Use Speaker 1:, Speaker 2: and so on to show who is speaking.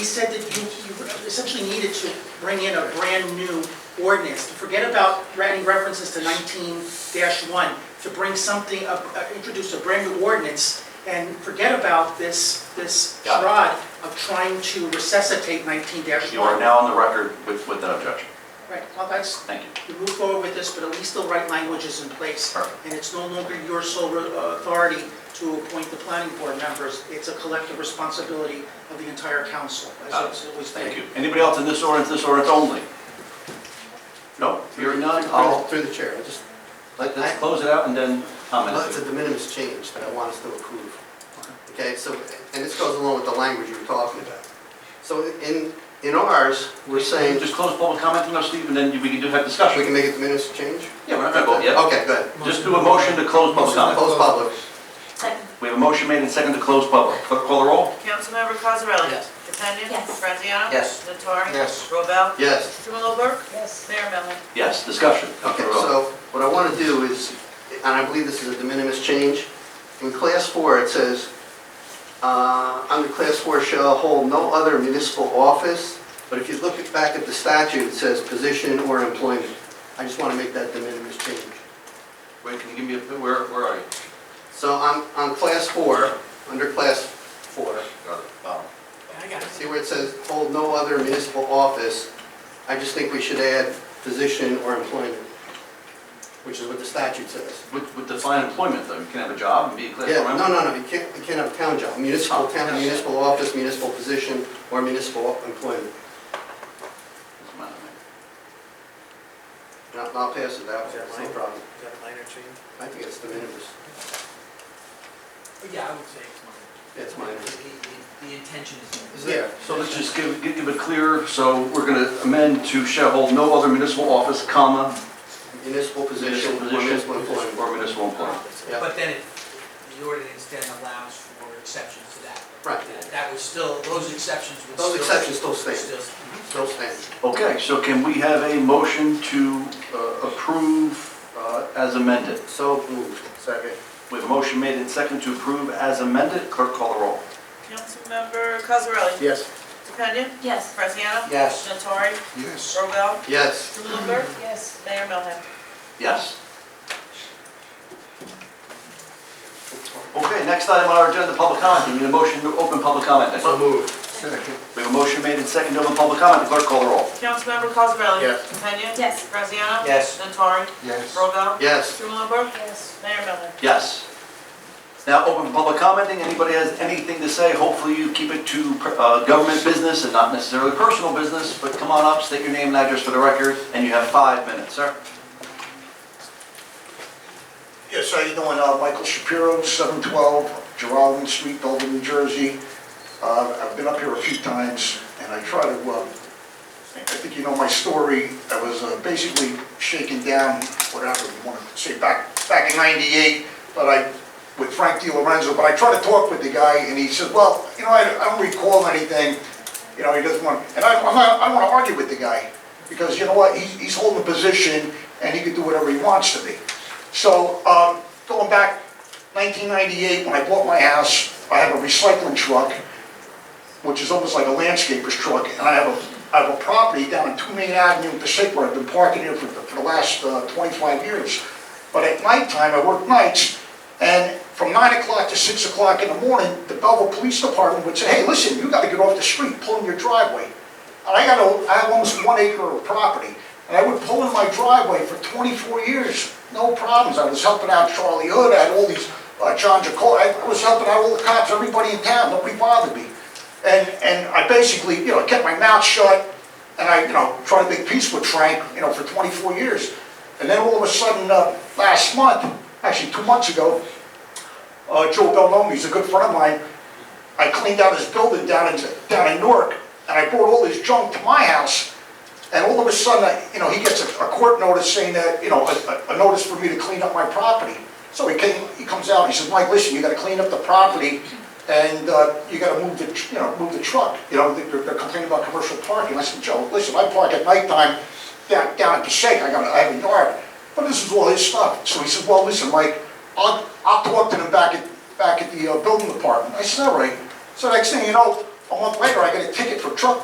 Speaker 1: He said that you you essentially needed to bring in a brand-new ordinance, to forget about any references to nineteen one, to bring something, up- uh, introduce a brand-new ordinance, and forget about this, this
Speaker 2: Got it.
Speaker 1: rod of trying to resuscitate nineteen
Speaker 2: You
Speaker 1: one.
Speaker 2: are now on the record with, with that objection.
Speaker 1: Right, well, that's,
Speaker 2: Thank you.
Speaker 1: we move forward with this, but at least the right language is in place.
Speaker 2: Perfect.
Speaker 1: And it's no longer your sole uh, authority to appoint the planning board members. It's a collective responsibility of the entire council, as it's always been.
Speaker 2: Thank you. Anybody else in this ordinance, this ordinance only? No, hearing none, I'll,
Speaker 3: Through the chair, I just,
Speaker 2: let- let's close it out and then
Speaker 3: that's a
Speaker 2: comment.
Speaker 3: de minimis change that I want us to approve. Okay, so, and this goes along with the language you were talking about. So in, in ours, we're saying,
Speaker 2: Just close public comment, you know, Steve, and then we can do have
Speaker 3: we
Speaker 2: discussion.
Speaker 3: can make it de minimis change?
Speaker 2: Yeah, we're not gonna vote yet.
Speaker 3: Okay, good.
Speaker 2: Just do a motion to close public comment.
Speaker 3: Close public.
Speaker 4: Second.
Speaker 2: We have a motion made and second to close public. Clerk, call the roll.
Speaker 5: Councilmember Cosarelli?
Speaker 3: Yes.
Speaker 5: Catania?
Speaker 4: Yes.
Speaker 5: Graziano?
Speaker 3: Yes.
Speaker 5: Nattari?
Speaker 3: Yes.
Speaker 5: Robel?
Speaker 3: Yes.
Speaker 5: Strumelob Burke?
Speaker 4: Yes.
Speaker 5: Mayor Mellon?
Speaker 2: Yes, discussion.
Speaker 3: Okay,
Speaker 2: Clerk, roll.
Speaker 3: so what I want to do is, and I believe this is a de minimis change, in class four, it says, uh, under class four shall hold no other municipal office, but if you look at- back at the statute, it says position or employment. I just want to make that de minimis change.
Speaker 2: Wait, can you give me, a where, where are you?
Speaker 3: So on, on class four, under class four,
Speaker 2: Got it. Um, Bottom.
Speaker 5: I got
Speaker 3: see where it says hold no other municipal office, I just think we should add position or employment, which is what the statute says.
Speaker 2: With, with define employment though, you can have a job and be a class four
Speaker 3: Yeah,
Speaker 2: member.
Speaker 3: no, no, no, you can't, you can't have a town job, municipal town, municipal office, municipal position, or municipal employment.
Speaker 2: Doesn't matter to me.
Speaker 3: And I'll I'll pass it that way, it's no problem.
Speaker 6: That minor change?
Speaker 3: I think it's the minimis,
Speaker 6: Oh, Yeah, I would say it's minor.
Speaker 3: it's minor.
Speaker 6: The, the intention
Speaker 3: Is
Speaker 6: is.
Speaker 3: there?
Speaker 2: So let's just give, give give it clear, so we're gonna amend to shall hold no other municipal office, comma,
Speaker 3: Municipal position,
Speaker 2: municipal
Speaker 3: or
Speaker 2: position,
Speaker 3: municipal employment.
Speaker 2: or municipal employment.
Speaker 3: Yeah.
Speaker 6: But then it, the ordinance then allows for exceptions to that.
Speaker 3: Right.
Speaker 6: That- That was still, those exceptions would still.
Speaker 3: Those exceptions still
Speaker 6: would
Speaker 3: stand,
Speaker 6: still-
Speaker 3: still stand.
Speaker 2: Okay, so can we have a motion to uh, approve uh, as amended?
Speaker 3: So moved. Second.
Speaker 2: We have a motion made and second to approve as amended, clerk call the roll.
Speaker 5: Councilmember Cosarelli?
Speaker 3: Yes.
Speaker 5: Catania?
Speaker 4: Yes.
Speaker 5: Graziano?
Speaker 3: Yes.
Speaker 5: Nattari? Yes. Robel?
Speaker 3: Yes.
Speaker 5: Strumelob Burke?
Speaker 4: Yes.
Speaker 5: Mayor Mellon?
Speaker 2: Yes. Okay, next item on our agenda, public comment, we need a motion to open public comment.
Speaker 3: So moved.
Speaker 2: We have a motion made and second to open public comment, clerk call the roll.
Speaker 5: Councilmember Cosarelli?
Speaker 3: Yes.
Speaker 5: Catania?
Speaker 4: Yes.
Speaker 5: Graziano?
Speaker 3: Yes.
Speaker 5: Nattari? Yes. Robel?
Speaker 3: Yes.
Speaker 5: Strumelob Burke?
Speaker 4: Yes.
Speaker 5: Mayor Mellon?
Speaker 2: Yes. Now, open for public commenting, anybody has anything to say, hopefully you keep it to uh, government business and not necessarily personal business, but come on up, state your name and address for the record, and you have five minutes, sir.
Speaker 7: Yes, how you doing? Uh, Michael Shapiro, 712 Geraldine Street, Dover, New Jersey. Uh, I've been up here a few times, and I try to, uh, I think you know my story. I was uh, basically shaken down, whatever you want to say, back, back in 98, but I, with Frank Di Lorenzo, but I tried to talk with the guy, and he said, well, you know, I I don't recall anything, you know, he doesn't want, and I, I'm not, I don't want to argue with the guy, because you know what, he's, he's holding a position, and he can do whatever he wants to be. So, um, going back 1998, when I bought my house, I have a recycling truck, which is almost like a landscaper's truck, and I have a, I have a property down in Two Main Avenue in Pacifica, I've been parking here for, the- for the last uh, 25 years. But at nighttime, I work nights, and from 9 o'clock to 6 o'clock in the morning, the Belleville Police Department would say, hey, listen, you gotta get off the street, pull in your driveway. And I got a, I have almost one acre of property, and I would pull in my driveway for 24 years, no problems. I was helping out Charlie Hood, I had all these, uh, John Jacob, I was helping out all the cops, everybody in town, nobody bothered me. And, and I basically, you know, kept my mouth shut, and I, you know, tried to make peace with Frank, you know, for 24 years. And then all of a sudden, uh, last month, actually two months ago, uh, Joe Bellomi, he's a good friend of mine, I cleaned out his building down in, down in Newark, and I brought all his junk to my house, and all of a sudden, I- you know, he gets a a court notice saying that, you know, a- a, a notice for me to clean up my property. So he came, he comes out, he says, Mike, listen, you gotta clean up the property, and, uh, you gotta move the, tr- you know, move the truck, you know, they're, they're complaining about commercial parking. I said, Joe, listen, I park at nighttime down, down at the shake, I got, a- I have a yard, but this is all his stuff. So he said, well, listen, Mike, I'll, I'll talk to them back at, back at the uh, building department. I said, all right. So next thing you know, A month later, I get a ticket for truck